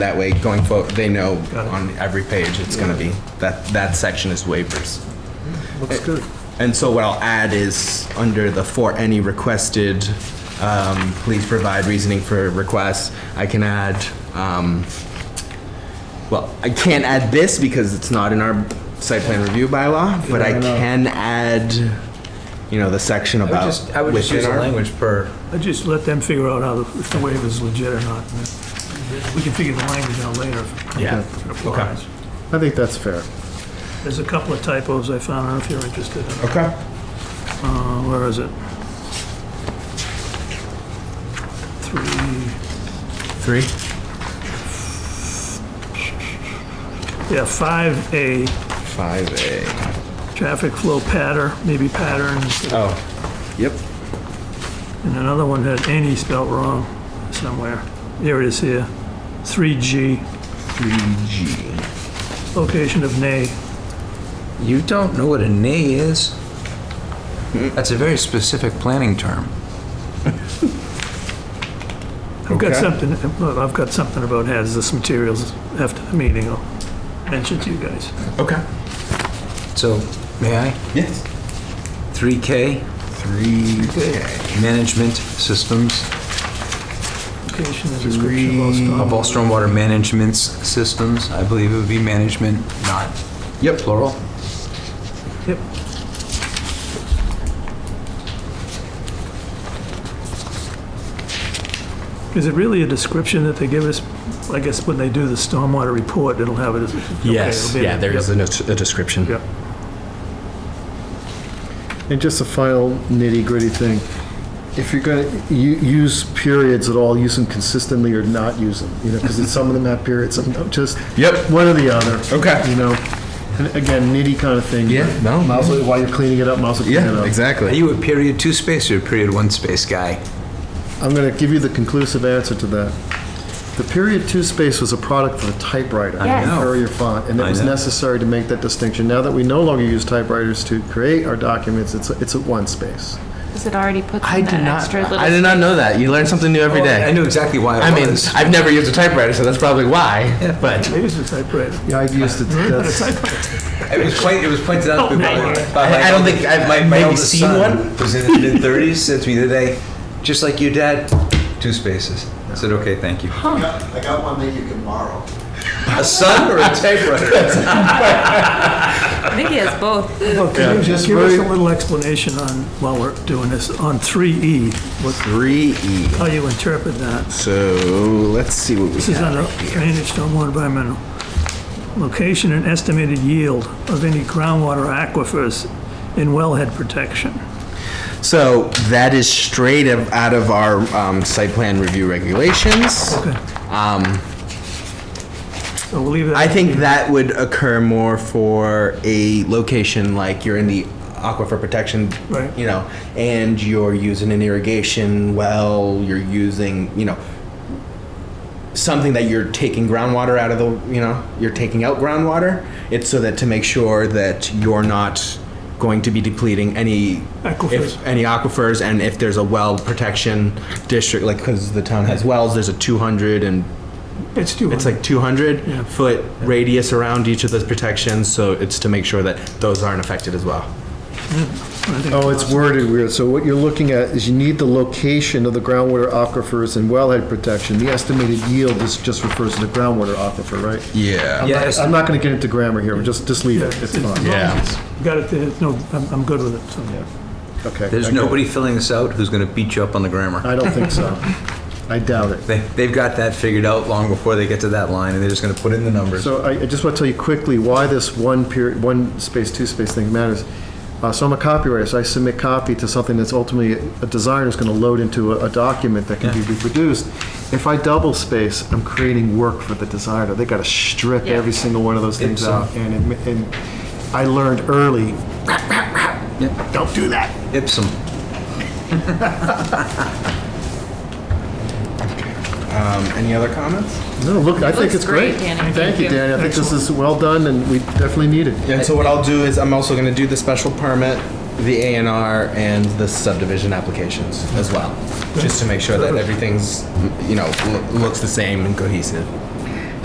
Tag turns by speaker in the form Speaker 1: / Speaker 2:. Speaker 1: That way, going forward, they know on every page, it's gonna be, that, that section is waivers.
Speaker 2: Looks good.
Speaker 1: And so what I'll add is, under the for any requested, um, please provide reasoning for requests, I can add, um, well, I can't add this because it's not in our site plan review bylaw, but I
Speaker 2: No, no.
Speaker 1: can add, you know, the section
Speaker 3: I would
Speaker 1: about.
Speaker 3: just, I would just use
Speaker 1: within
Speaker 3: the
Speaker 1: our-
Speaker 3: language per,
Speaker 2: I just let them figure out how, the- if the waiver's legit or not. and then We can figure the language out later if
Speaker 1: Yeah,
Speaker 2: it applies.
Speaker 4: I think that's fair.
Speaker 2: There's a couple of typos I found, I don't know if you're interested
Speaker 4: Oh.
Speaker 2: in.
Speaker 1: okay.
Speaker 2: Uh, where is it? Three,
Speaker 1: Three?
Speaker 2: yeah, five A,
Speaker 1: Five A.
Speaker 2: traffic flow pattern, maybe patterns.
Speaker 1: Oh, yep.
Speaker 2: And another one had any spelt wrong somewhere. Here it is here. 3G,
Speaker 1: Three G.
Speaker 2: location of nay.
Speaker 3: you don't know what a nay is?
Speaker 1: Hmm?
Speaker 3: That's a very specific planning term.
Speaker 2: I've got
Speaker 1: Okay.
Speaker 2: something, well, I've got something about hazardous materials after the meeting. I'll mention to you guys.
Speaker 1: Okay.
Speaker 3: So, may I?
Speaker 1: Yes.
Speaker 3: 3K,
Speaker 1: Three
Speaker 3: management systems,
Speaker 2: Location and description of all
Speaker 3: of
Speaker 2: storm-
Speaker 3: all stormwater management s- systems, I believe it would be management, not
Speaker 1: Yep.
Speaker 3: plural.
Speaker 2: Yep. Is it really a description that they give us? I guess when they do the stormwater report, it'll have it as. okay,
Speaker 1: Yes,
Speaker 2: it'll be
Speaker 1: yeah, there is a not- a description.
Speaker 2: Yep.
Speaker 4: And just a final nitty gritty thing. If you're gonna u- use periods at all, use them consistently or not use them, you know, because some of them have periods, some don't, just.
Speaker 1: Yep.
Speaker 4: One or the other.
Speaker 1: Okay.
Speaker 4: You know, and again, nitty kind of thing.
Speaker 1: Yeah,
Speaker 4: but
Speaker 1: no,
Speaker 4: might as well- While you're cleaning it up, might as well clean it
Speaker 1: Yeah,
Speaker 4: up.
Speaker 3: Are
Speaker 1: exactly.
Speaker 3: you a period two space or a period one space guy?
Speaker 4: I'm gonna give you the conclusive answer to that. The period two space was a product of the typewriter.
Speaker 3: Yes. know.
Speaker 4: Courier font, and it
Speaker 3: I
Speaker 4: was
Speaker 3: know.
Speaker 4: necessary to make that distinction. Now that we no longer use typewriters to create our documents, it's, it's at one space.
Speaker 5: Because it already puts
Speaker 1: I
Speaker 5: in
Speaker 1: did
Speaker 5: that
Speaker 1: not,
Speaker 5: extra little.
Speaker 1: I did not know that. You learn something new every
Speaker 3: I
Speaker 1: day.
Speaker 3: knew exactly why
Speaker 1: I
Speaker 3: it
Speaker 1: mean,
Speaker 3: was.
Speaker 1: I've never used a typewriter, so that's probably why, but.
Speaker 2: Maybe it's a typewriter.
Speaker 4: Yeah, I used it, that's.
Speaker 3: It was quite, it was pointed out to me by my. by my
Speaker 1: I don't think
Speaker 3: eldest-
Speaker 1: I've
Speaker 3: my- my
Speaker 1: maybe
Speaker 3: eldest
Speaker 1: seen
Speaker 3: son,
Speaker 1: one.
Speaker 3: Who's in his mid thirties, said to me today, just like your dad, two spaces. I said, okay, thank you.
Speaker 6: I got one that you can borrow.
Speaker 3: A son or a typewriter?
Speaker 5: I think he has both.
Speaker 2: Well, can you
Speaker 4: just
Speaker 2: give us a
Speaker 4: very-
Speaker 2: little explanation on, while we're doing this, on 3E, what,
Speaker 1: Three E.
Speaker 2: how you interpret that?
Speaker 1: So let's see what we
Speaker 2: This is under drainage, stormwater, environmental. Location and estimated yield of any groundwater aquifers in wellhead protection.
Speaker 1: So that is straight of- out of our um, site plan review regulations.
Speaker 2: Okay. So we'll leave that.
Speaker 1: I think that would occur more for a location like you're in the aquifer protection,
Speaker 2: Right.
Speaker 1: you know, and you're using an irrigation well, you're using, you know, something that you're taking groundwater out of the, you know, you're taking out groundwater. It's so that to make sure that you're not going to be depleting any
Speaker 2: Aquifers.
Speaker 1: If, any aquifers, and if there's a well protection district, like because the town has wells, there's a 200 and
Speaker 2: It's too
Speaker 1: it's
Speaker 2: hard.
Speaker 1: like 200
Speaker 2: Yeah.
Speaker 1: foot radius around each of those protections, so it's to make sure that those aren't affected as well.
Speaker 4: Oh, it's worded weird. So what you're looking at is you need the location of the groundwater aquifers and wellhead protection. The estimated yield is, just refers to the groundwater aquifer, right?
Speaker 1: Yeah.
Speaker 3: Yes.
Speaker 4: I'm not gonna get into grammar here, just, just leave it, it's fine.
Speaker 1: Yeah.
Speaker 2: Got it, there. no, I'm, I'm good with it, so.
Speaker 4: Okay. I
Speaker 3: There's
Speaker 4: could-
Speaker 3: nobody filling this out who's gonna beat you up on the grammar.
Speaker 4: I don't think so. I doubt it.
Speaker 3: They, they've got that figured out long before they get to that line, and they're just gonna put in the numbers.
Speaker 4: So I, I just want to tell you quickly why this one period, one space, two space thing matters. Uh, so I'm a copywriter, so I submit copy to something that's ultimately a designer is going to load into a, a document that can be reproduced. If I double space, I'm creating work for the designer. They got to strip
Speaker 5: Yeah. uh,
Speaker 4: every single one of those things
Speaker 3: Ipsum.
Speaker 4: out, and it, and I learned early. Don't do that.
Speaker 3: Ipsum.
Speaker 1: Um, any other comments?
Speaker 4: No, look, I think
Speaker 5: looks
Speaker 4: it's great.
Speaker 5: great, Danny.
Speaker 4: Thank you, Danny. I think this is well done, and we definitely need it.
Speaker 1: And so what I'll do is I'm also going to do the special permit, the A and R, and the subdivision applications as well, just to make sure that everything's you know lo- looks the same and cohesive.